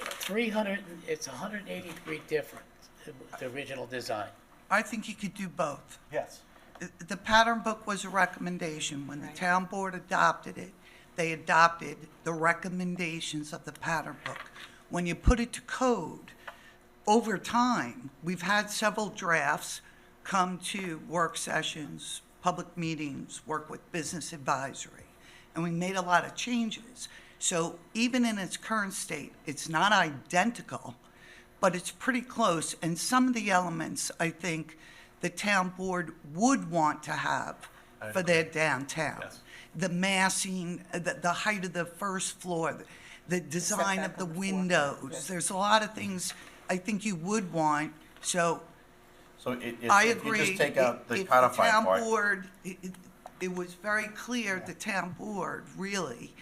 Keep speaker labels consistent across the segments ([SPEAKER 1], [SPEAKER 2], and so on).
[SPEAKER 1] three hundred, it's hundred and eighty degree different, than the original design.
[SPEAKER 2] I think you could do both.
[SPEAKER 3] Yes.
[SPEAKER 2] The- The pattern book was a recommendation. When the
[SPEAKER 4] Right.
[SPEAKER 2] town board adopted it, they adopted the recommendations of the pattern book. When you put it to code, over time, we've had several drafts come to work sessions, public meetings, work with business advisory, and we made a lot of changes. So even in its current state, it's not identical, but it's pretty close. And some of the elements, I think, the town board would want to have for their downtown.
[SPEAKER 3] Yes.
[SPEAKER 2] The massing, uh, the, the height of the first floor, the- the design of
[SPEAKER 4] setback
[SPEAKER 2] the
[SPEAKER 4] on the floor.
[SPEAKER 2] windows. There's a lot of things I think you would want, so
[SPEAKER 3] So it, it,
[SPEAKER 2] I
[SPEAKER 3] if you
[SPEAKER 2] agree.
[SPEAKER 3] just take out
[SPEAKER 2] If-
[SPEAKER 3] the
[SPEAKER 2] if
[SPEAKER 3] codified
[SPEAKER 2] Town
[SPEAKER 3] part,
[SPEAKER 2] board, it, it- it was very clear, the town board really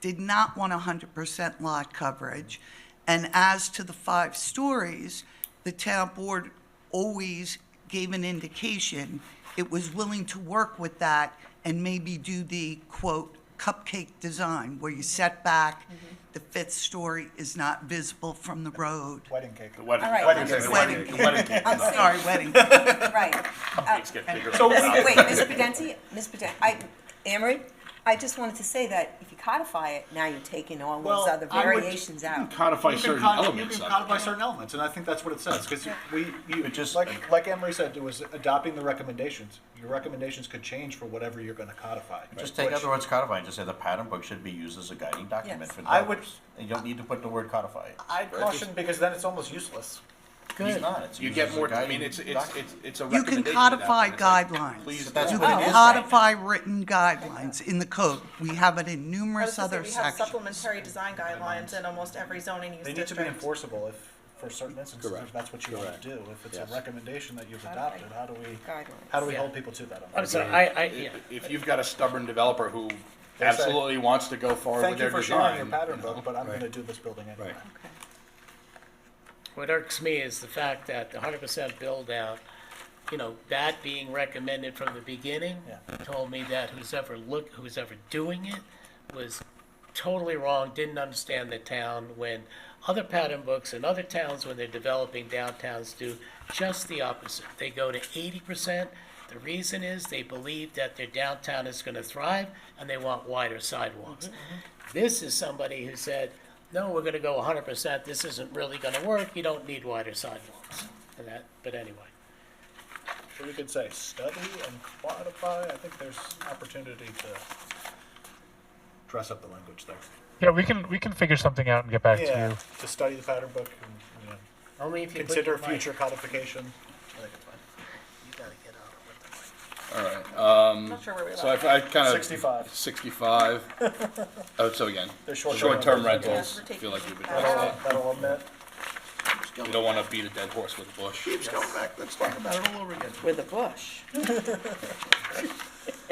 [SPEAKER 2] did not want hundred percent lot coverage. And as to the five stories, the town board always gave an indication it was willing to work with that and maybe do the quote cupcake design where you set back, the fifth story is not visible from the road.
[SPEAKER 5] Wedding cake.
[SPEAKER 3] the wedding,
[SPEAKER 4] All right.
[SPEAKER 3] wedding cake, the
[SPEAKER 2] Wedding
[SPEAKER 3] wedding, the wedding cake.
[SPEAKER 4] I'm
[SPEAKER 3] design.
[SPEAKER 2] Sorry, wedding.
[SPEAKER 4] Right.
[SPEAKER 6] Things get bigger.
[SPEAKER 3] So-
[SPEAKER 4] Miss- Wait, Ms. Pedenti, Ms. Pedenti, I, Amory, I just wanted to say that if you codify it, now you're taking all those
[SPEAKER 5] Well,
[SPEAKER 4] other
[SPEAKER 5] I would-
[SPEAKER 4] variations
[SPEAKER 6] You can
[SPEAKER 4] out.
[SPEAKER 6] Codify
[SPEAKER 5] You can
[SPEAKER 6] certain
[SPEAKER 5] cod- you
[SPEAKER 6] elements
[SPEAKER 5] can
[SPEAKER 6] of it.
[SPEAKER 5] codify certain elements, and I think that's what it says, because we, you,
[SPEAKER 3] It just-
[SPEAKER 5] just, like, like Emery said, it was adopting the recommendations. Your recommendations could change for whatever you're gonna codify.
[SPEAKER 3] Just take out
[SPEAKER 5] Which-
[SPEAKER 3] the words codify and just say the pattern book should be used as a guiding document
[SPEAKER 4] Yes.
[SPEAKER 3] for
[SPEAKER 5] I would-
[SPEAKER 3] developers. And you don't need to put the word codify.
[SPEAKER 5] I'd caution, because then it's almost useless.
[SPEAKER 3] It's
[SPEAKER 1] Good.
[SPEAKER 3] not, it's
[SPEAKER 6] You
[SPEAKER 3] used
[SPEAKER 6] get
[SPEAKER 3] as a
[SPEAKER 6] more, I
[SPEAKER 3] guiding
[SPEAKER 6] mean, it's, it's,
[SPEAKER 3] document.
[SPEAKER 6] it's, it's a
[SPEAKER 2] You
[SPEAKER 6] recommendation.
[SPEAKER 2] can
[SPEAKER 6] at that
[SPEAKER 2] codify
[SPEAKER 6] point. It's like,
[SPEAKER 2] guidelines.
[SPEAKER 6] Please,
[SPEAKER 3] that's
[SPEAKER 2] You
[SPEAKER 3] what
[SPEAKER 2] can
[SPEAKER 3] it is right now.
[SPEAKER 2] codify written guidelines in the code. We have it in
[SPEAKER 7] I was
[SPEAKER 2] numerous
[SPEAKER 7] gonna say,
[SPEAKER 2] other
[SPEAKER 7] we have
[SPEAKER 2] sections.
[SPEAKER 7] supplementary design guidelines in almost every zoning use
[SPEAKER 5] They need
[SPEAKER 7] district.
[SPEAKER 5] to be enforceable if, for certain instances, if that's what you wanna
[SPEAKER 3] Correct.
[SPEAKER 5] do. If it's a
[SPEAKER 3] Yes.
[SPEAKER 5] recommendation that you've adopted, how do we, how do we hold people to that?
[SPEAKER 1] I'm sorry, I, I, yeah.
[SPEAKER 6] if- If you've got a stubborn developer who
[SPEAKER 5] Yes, I-
[SPEAKER 6] absolutely wants to go forward with
[SPEAKER 5] Thank you
[SPEAKER 6] their
[SPEAKER 5] for sharing your
[SPEAKER 6] design.
[SPEAKER 5] pattern book, but I'm gonna do this building anyway.
[SPEAKER 1] What irks me is the fact that the hundred percent build out, you know, that being recommended from the beginning,
[SPEAKER 5] Yeah.
[SPEAKER 1] told me that who's ever look, who's ever doing it was totally wrong, didn't understand the town, when other pattern books and other towns, when they're developing downtowns, do just the opposite. They go to eighty percent. The reason is they believe that their downtown is gonna thrive, and they want wider sidewalks. This is somebody who said, no, we're gonna go hundred percent, this isn't really gonna work, you don't need wider sidewalks. And that, but anyway,
[SPEAKER 5] So we could say study and quantify, I think there's opportunity to dress up the language there.
[SPEAKER 8] Yeah, we can we can figure something out and get back to
[SPEAKER 5] Yeah,
[SPEAKER 8] you.
[SPEAKER 5] to study the pattern book and, you know,
[SPEAKER 1] only if you put
[SPEAKER 5] consider
[SPEAKER 1] your mic-
[SPEAKER 5] future codification.
[SPEAKER 7] I'm not sure where we
[SPEAKER 6] So
[SPEAKER 7] left.
[SPEAKER 6] if I kind of.
[SPEAKER 5] 65.
[SPEAKER 6] Sixty-five. Oh, so again,
[SPEAKER 5] They're short-term
[SPEAKER 6] short-term
[SPEAKER 5] rentals.
[SPEAKER 7] Yeah,
[SPEAKER 6] rentals, I
[SPEAKER 7] we're
[SPEAKER 6] feel like we've
[SPEAKER 7] taking
[SPEAKER 6] addressed
[SPEAKER 7] that
[SPEAKER 6] that.
[SPEAKER 7] out.
[SPEAKER 5] That'll omit,
[SPEAKER 6] We don't want to beat a dead horse with a bush.
[SPEAKER 3] Keeps going back, let's talk about it all over again.
[SPEAKER 4] With a bush.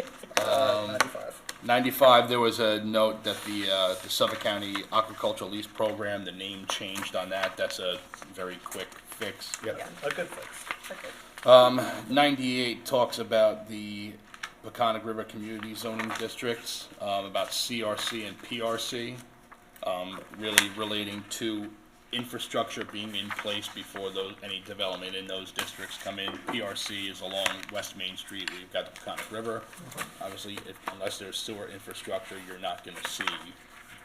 [SPEAKER 5] ninety-five.
[SPEAKER 6] 95, there was a note that the, uh, the Suffolk County Aquaculture Lease Program, the name changed on that. That's a very quick fix.
[SPEAKER 5] Yeah, a good fix.
[SPEAKER 6] 98 talks about the Peconic River Community Zoning Districts, um, about CRC and PRC, um, really relating to infrastructure being in place before those, any development in those districts come in. PRC is along West Main Street, we've got the Peconic River. Obviously, if- unless there's sewer infrastructure, you're not gonna see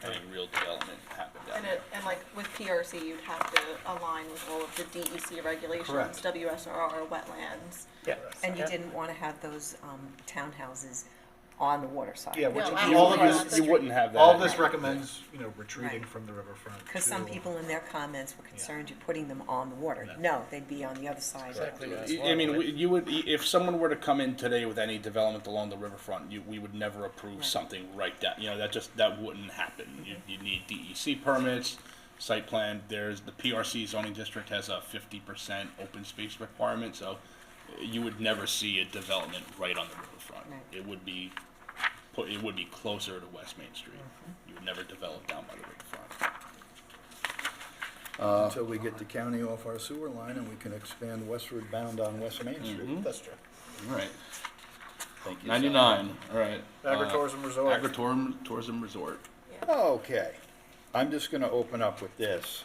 [SPEAKER 6] any real development happen down
[SPEAKER 7] And
[SPEAKER 6] there.
[SPEAKER 7] it, and like with PRC, you'd have to align with all of the DEC regulations,
[SPEAKER 5] Correct.
[SPEAKER 7] WSRR, wetlands.
[SPEAKER 1] Yeah.
[SPEAKER 4] And you didn't want to have those um, townhouses on the water side.
[SPEAKER 5] Yeah, which,
[SPEAKER 7] No,
[SPEAKER 5] is-
[SPEAKER 7] absolutely.
[SPEAKER 5] all of
[SPEAKER 7] Yeah.
[SPEAKER 5] this,
[SPEAKER 6] You wouldn't have that.
[SPEAKER 5] all this recommends, you know, retreating
[SPEAKER 4] Right.
[SPEAKER 5] from the riverfront.
[SPEAKER 4] Because some
[SPEAKER 5] to-
[SPEAKER 4] people in their comments were concerned you're putting them on the water. No, they'd be on the other side. of the
[SPEAKER 1] Exactly what I was
[SPEAKER 6] I- I mean, we- you would, if someone were to come in today with any development along the riverfront, you, we would never approve something right down, you know, that just, that wouldn't happen. You, you need DEC permits, site plan, there's, the PRC zoning district has a fifty percent open space requirement, so you would never see a development right on the riverfront.
[SPEAKER 4] Right.
[SPEAKER 6] It would be, put- it would be closer to West Main Street. You would never develop down by the riverfront.
[SPEAKER 9] Until we get the county off our sewer line and we can expand westward bound on West Main Street.
[SPEAKER 5] That's true.
[SPEAKER 6] All right,
[SPEAKER 9] Thank you.
[SPEAKER 6] ninety-nine, all right. uh,
[SPEAKER 5] Agritourism resort.
[SPEAKER 6] Agritourism, tourism resort.
[SPEAKER 9] Okay, I'm just gonna open up with this.